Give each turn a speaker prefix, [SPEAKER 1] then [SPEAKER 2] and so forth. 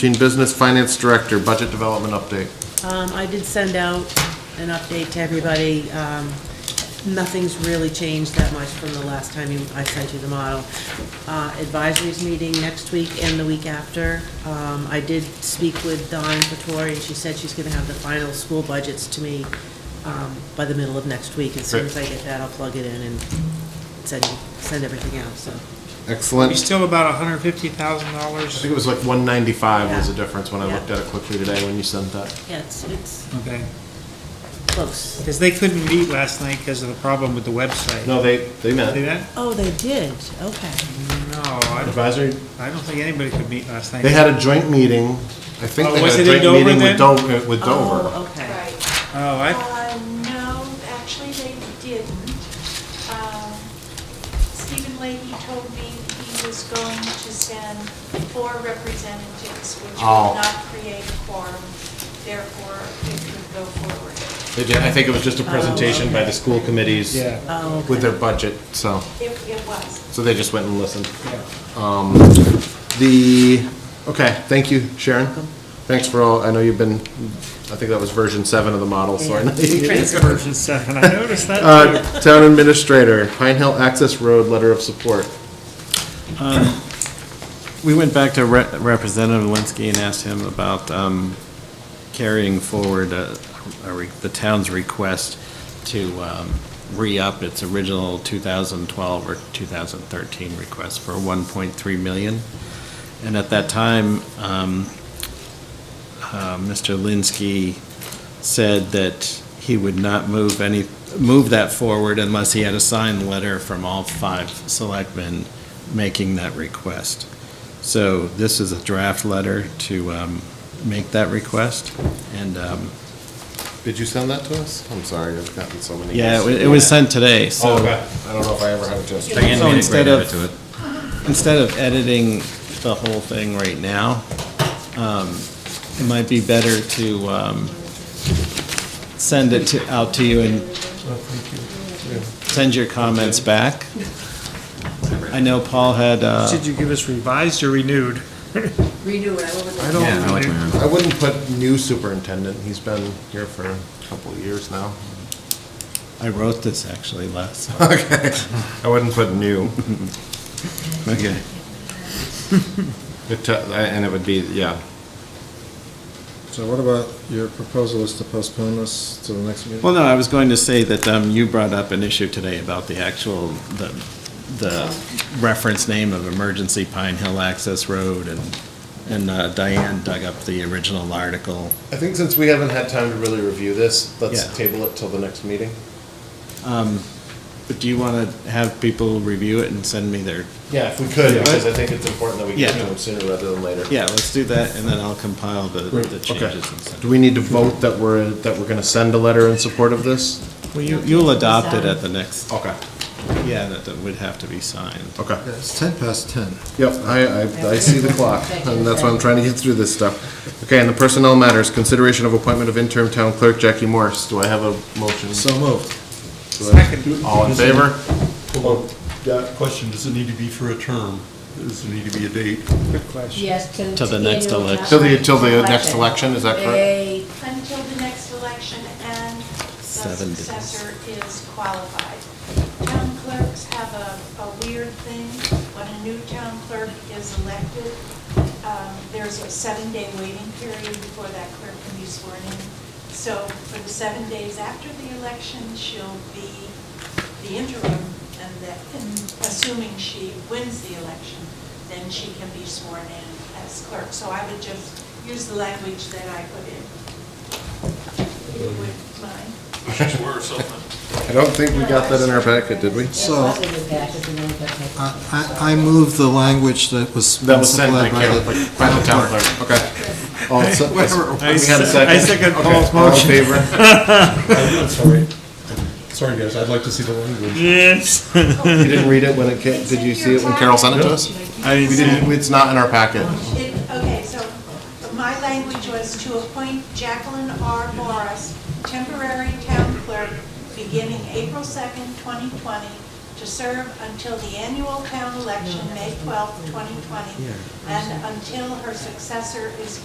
[SPEAKER 1] Gene Business Finance Director, Budget Development Update.
[SPEAKER 2] Um, I did send out an update to everybody. Um, nothing's really changed that much from the last time you, I sent you the model. Uh, advisories meeting next week and the week after. Um, I did speak with Dawn Patori, and she said she's gonna have the final school budgets to me, um, by the middle of next week. As soon as I get that, I'll plug it in and send, send everything out, so.
[SPEAKER 1] Excellent.
[SPEAKER 3] We
[SPEAKER 1] I
[SPEAKER 3] still have about hundred fifty thousand dollars.
[SPEAKER 1] think it was like 195 was the difference when I
[SPEAKER 2] Yeah.
[SPEAKER 1] looked at it quickly today when you sent that.
[SPEAKER 2] Yeah, it's, it's
[SPEAKER 3] Okay,
[SPEAKER 2] close.
[SPEAKER 3] because they couldn't meet last night because of the problem with the website.
[SPEAKER 1] No, they, they
[SPEAKER 3] See
[SPEAKER 1] met.
[SPEAKER 3] that?
[SPEAKER 2] Oh, they did, okay.
[SPEAKER 3] No, I don't,
[SPEAKER 1] Advisory,
[SPEAKER 3] I don't think anybody could meet last night.
[SPEAKER 1] they had a joint meeting. I think
[SPEAKER 3] Oh,
[SPEAKER 1] they
[SPEAKER 3] was
[SPEAKER 1] had a
[SPEAKER 3] it in
[SPEAKER 1] joint meeting with
[SPEAKER 3] Dover
[SPEAKER 1] Dover. With Dover.
[SPEAKER 2] Oh, okay.
[SPEAKER 4] Right.
[SPEAKER 3] Oh, I,
[SPEAKER 4] Uh, no, actually, they didn't. Um, Stephen Leahy told me he was going to send four representatives, which
[SPEAKER 1] Oh.
[SPEAKER 4] will not create a quorum, therefore it could go forward.
[SPEAKER 1] They did, I think it was just a presentation by the school committees
[SPEAKER 3] yeah,
[SPEAKER 2] Oh, okay.
[SPEAKER 1] with their budget, so,
[SPEAKER 4] It, it was.
[SPEAKER 1] so they just went and listened. Um,
[SPEAKER 3] yeah.
[SPEAKER 1] The, okay, thank you, Sharon. Thanks for all, I know you've been, I think that was version seven of the model, so I know you-
[SPEAKER 3] It is version seven, I noticed that. too.
[SPEAKER 1] Uh, Town Administrator, Pine Hill Access Road Letter of Support.
[SPEAKER 5] We went back to Re- Representative Linsky and asked him about um, carrying forward uh, a re- the town's request to um, re-up its original 2012 or 2013 request for 1.3 million. And at that time, um, uh, Mr. Linsky said that he would not move any, move that forward unless he had a signed letter from all five selectmen making that request. So this is a draft letter to um, make that request, and, um,
[SPEAKER 1] Did you send that to us? I'm sorry, I've gotten so many.
[SPEAKER 5] yeah, it wa- it was sent today,
[SPEAKER 1] Oh,
[SPEAKER 5] so.
[SPEAKER 1] okay. I don't know if I ever had a chance. to-
[SPEAKER 5] So instead of, instead of editing the whole thing right now, um, it might be better to um, send it to, out to you and send your comments back. I know Paul had, uh,
[SPEAKER 3] Did you give us revised or renewed?
[SPEAKER 6] redo it, I will look at
[SPEAKER 1] I
[SPEAKER 6] it.
[SPEAKER 3] know.
[SPEAKER 1] don't, I wouldn't put new superintendent, he's been here for a couple of years now.
[SPEAKER 5] I wrote this actually last.
[SPEAKER 1] I wouldn't put new.
[SPEAKER 5] Okay.
[SPEAKER 1] It, t- and it would be, yeah.
[SPEAKER 7] So what about your proposal is to postpone this to the next meeting?
[SPEAKER 5] Well, no, I was going to say that um, you brought up an issue today about the actual, the, the reference name of Emergency Pine Hill Access Road, and, and uh, Diane dug up the original article.
[SPEAKER 1] I think since we haven't had time to really review this,
[SPEAKER 5] Yeah.
[SPEAKER 1] let's table it till the next meeting.
[SPEAKER 5] But do you want to have people review it and send me their,
[SPEAKER 1] Yeah, if we could, because I think it's important that we get to
[SPEAKER 5] Yeah.
[SPEAKER 1] them sooner rather than later.
[SPEAKER 5] yeah, let's do that, and then I'll compile the, the changes and send
[SPEAKER 1] Do we need to vote that we're, that we're gonna send a letter in support of this?
[SPEAKER 5] it. Well, you, you'll adopt it at the next,
[SPEAKER 1] Okay.
[SPEAKER 5] yeah, that that would have to be signed.
[SPEAKER 1] Okay.
[SPEAKER 7] Yeah, It's 10 past 10.
[SPEAKER 1] Yep, I, I, I see the clock, and that's why I'm trying to get through this stuff. Okay, and the personnel matters, consideration of appointment of interim town clerk Jackie Morse. Do I have a motion?
[SPEAKER 7] So moved.
[SPEAKER 3] Second,
[SPEAKER 1] All in favor?
[SPEAKER 8] Question, does it need to be for a term? Does it need to be a date?
[SPEAKER 3] good question.
[SPEAKER 6] Yes, to.
[SPEAKER 5] Till the next
[SPEAKER 6] annual
[SPEAKER 5] election.
[SPEAKER 1] Till the, till the next election, is that correct?
[SPEAKER 6] They,
[SPEAKER 4] Until the next election and the
[SPEAKER 5] Seven days.
[SPEAKER 4] successor is qualified. Town clerks have a, a weird thing. When a new town clerk is elected, um, there's a seven-day waiting period before that clerk can be sworn in. So for the seven days after the election, she'll be the interim and that, and assuming she wins the election, then she can be sworn in as clerk. So I would just use the language that I put in. If you wouldn't mind.
[SPEAKER 1] I don't think we got that in our packet, did we?
[SPEAKER 6] it
[SPEAKER 7] So-
[SPEAKER 6] was in the back, if you know, but I-
[SPEAKER 7] I, uh, I I move the language that was.
[SPEAKER 1] That was sent by
[SPEAKER 7] supplied
[SPEAKER 1] Carol, by
[SPEAKER 7] the-
[SPEAKER 1] the town clerk, okay. All, se- we
[SPEAKER 3] I
[SPEAKER 1] had a
[SPEAKER 3] se- I
[SPEAKER 1] second?
[SPEAKER 3] second
[SPEAKER 1] Okay,
[SPEAKER 3] Paul's
[SPEAKER 1] all in
[SPEAKER 3] motion.
[SPEAKER 1] favor?
[SPEAKER 7] Sorry, Sorry, guys, I'd like to see the language.
[SPEAKER 3] Yes.
[SPEAKER 1] You didn't read it when it came, did you see it when Carol sent it to us?
[SPEAKER 3] I
[SPEAKER 1] We
[SPEAKER 3] didn't see it.
[SPEAKER 1] didn't, it's not in our packet.
[SPEAKER 4] It, okay, so my language was to appoint Jacqueline R. Morris, temporary town clerk, beginning April 2nd, 2020, to serve until the annual town election, May 12, 2020, and until her successor is